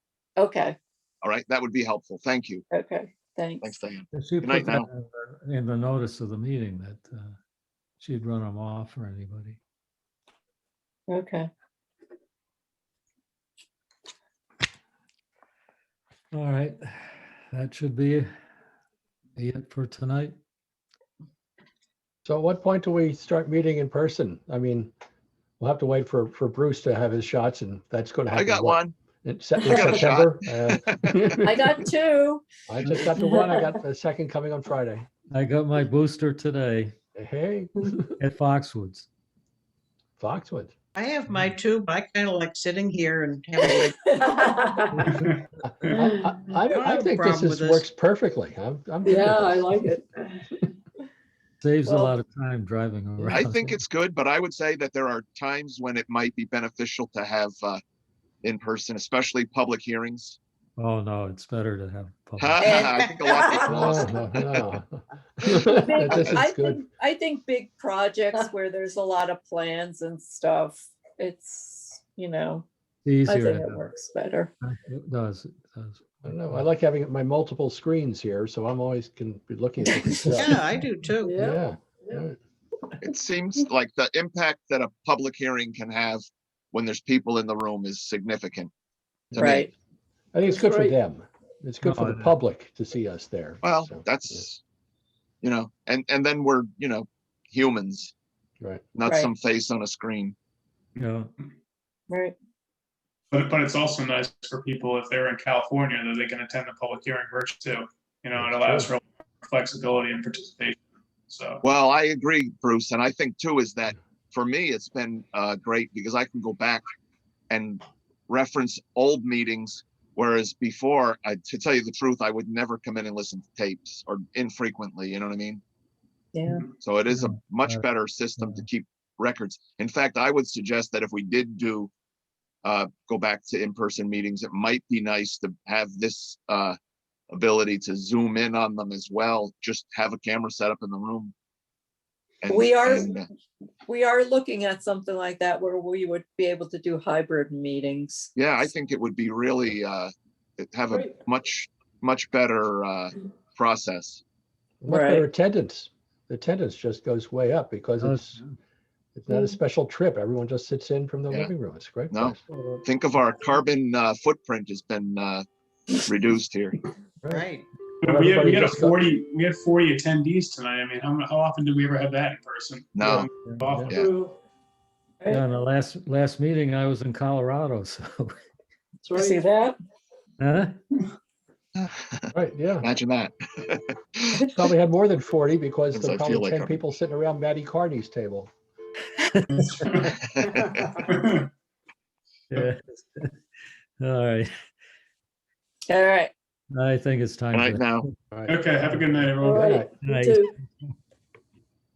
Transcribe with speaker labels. Speaker 1: Okay,
Speaker 2: All right, that would be helpful. Thank you.
Speaker 1: okay, thanks.
Speaker 2: Thanks, Diane.
Speaker 3: If she
Speaker 2: Good night
Speaker 3: put that in the- in the notice of the meeting that uh, she'd run them off or anybody.
Speaker 1: Okay,
Speaker 3: All right, that should be be it for tonight.
Speaker 4: So at what point do we start meeting in person? I mean, we'll have to wait for, for Bruce to have his shots and that's going to
Speaker 2: I
Speaker 4: happen.
Speaker 2: got
Speaker 4: what,
Speaker 2: one.
Speaker 4: In Sep-
Speaker 2: I
Speaker 4: in
Speaker 2: got a
Speaker 4: September.
Speaker 2: shot.
Speaker 4: Uh,
Speaker 1: I got two.
Speaker 4: I just got the one. I got the second coming on Friday.
Speaker 3: I got my booster today
Speaker 4: Hey,
Speaker 3: at Foxwoods.
Speaker 4: Foxwood.
Speaker 5: I have my two, but I kind of like sitting here and having like,
Speaker 1: Yeah,
Speaker 4: I, I, I-
Speaker 5: don't
Speaker 4: I
Speaker 5: Mm. have a
Speaker 4: think this
Speaker 5: problem with
Speaker 4: is,
Speaker 5: this.
Speaker 4: works perfectly. I'm, I'm. good with
Speaker 1: I
Speaker 4: this.
Speaker 1: like it.
Speaker 3: Saves a
Speaker 1: Well-
Speaker 3: lot of time driving around.
Speaker 2: I think it's good, but I would say that there are times when it might be beneficial to have uh, in person, especially public hearings.
Speaker 3: Oh, no, it's better to have. public.
Speaker 2: I think a lot gets
Speaker 4: No,
Speaker 2: lost.
Speaker 4: no, no.
Speaker 1: I think-
Speaker 4: This
Speaker 1: I
Speaker 4: is good.
Speaker 1: think- I think big projects where there's a lot of plans and stuff, it's, you know,
Speaker 3: It's
Speaker 1: I
Speaker 3: Easier.
Speaker 1: think
Speaker 3: to
Speaker 1: it
Speaker 3: have.
Speaker 1: works better.
Speaker 3: It does, it does.
Speaker 4: I don't know. I like having my multiple screens here, so I'm always can be looking. at different stuff.
Speaker 5: yeah, I do too.
Speaker 1: Yeah,
Speaker 4: Yeah. yeah.
Speaker 2: It seems like the impact that a public hearing can have when there's people in the room is significant. to me.
Speaker 1: right.
Speaker 4: I think it's good for
Speaker 1: Right.
Speaker 4: them. It's good for
Speaker 3: No,
Speaker 4: the
Speaker 3: it-
Speaker 4: public to see us there.
Speaker 2: Well,
Speaker 4: so, yeah,
Speaker 2: that's, you know, and, and then we're, you know, humans,
Speaker 4: Right.
Speaker 2: not
Speaker 1: Right.
Speaker 2: some face on a screen.
Speaker 3: Yeah,
Speaker 1: Right,
Speaker 6: But, but it's also nice for people if they're in California that they can attend the public hearing virtually. too. You know, it allows for flexibility and participation. So,
Speaker 2: Well, I agree, Bruce, and I think too is that for me, it's been uh, great because I can go back and reference old meetings, whereas before, I, to tell you the truth, I would never come in and listen to tapes or infrequently. You know what I mean?
Speaker 1: yeah,
Speaker 2: So it is a much
Speaker 3: uh,
Speaker 2: better system to keep records. In fact, I would suggest that if we did do uh, go back to in-person meetings, it might be nice to have this uh, ability to zoom in on them as well. Just have a camera set up in the room. And-
Speaker 1: We are-
Speaker 2: and, uh,
Speaker 1: we are looking at something like that where we would be able to do hybrid meetings.
Speaker 2: Yeah, I think it would be really uh, it- have a
Speaker 1: Great.
Speaker 2: much, much better uh, process.
Speaker 4: Much better
Speaker 1: Right.
Speaker 4: attendance. The attendance just goes way up because
Speaker 3: does.
Speaker 4: it's, it's not a
Speaker 1: Mm.
Speaker 4: special trip. Everyone just sits in from the
Speaker 2: Yeah.
Speaker 4: living room. It's a great.
Speaker 2: No.
Speaker 4: place.
Speaker 2: Think of our carbon uh, footprint has been uh, reduced here.
Speaker 5: Right.
Speaker 6: But we had,
Speaker 4: Everybody
Speaker 6: we had a
Speaker 4: just got-
Speaker 6: forty, we had forty attendees tonight. I mean, how, mu- how often do we ever have that in person?
Speaker 2: No.
Speaker 6: Often.
Speaker 2: Yeah.
Speaker 3: Yeah, and the last, last meeting I was in Colorado, so.
Speaker 1: See that?
Speaker 3: Huh?
Speaker 4: Right, yeah.
Speaker 2: Imagine that.
Speaker 4: Probably had more than forty because there were
Speaker 2: Sometimes I feel
Speaker 4: probably
Speaker 2: like
Speaker 4: ten
Speaker 2: I'm-
Speaker 4: people sitting around Matty Carney's table.
Speaker 3: Yeah. All right,
Speaker 1: All right.
Speaker 3: I think it's time.
Speaker 2: Right
Speaker 3: for-
Speaker 2: now.
Speaker 4: All right.
Speaker 6: Okay, have a good night,
Speaker 1: All
Speaker 6: everyone.
Speaker 1: right.
Speaker 4: night.
Speaker 3: Good night.
Speaker 1: Two.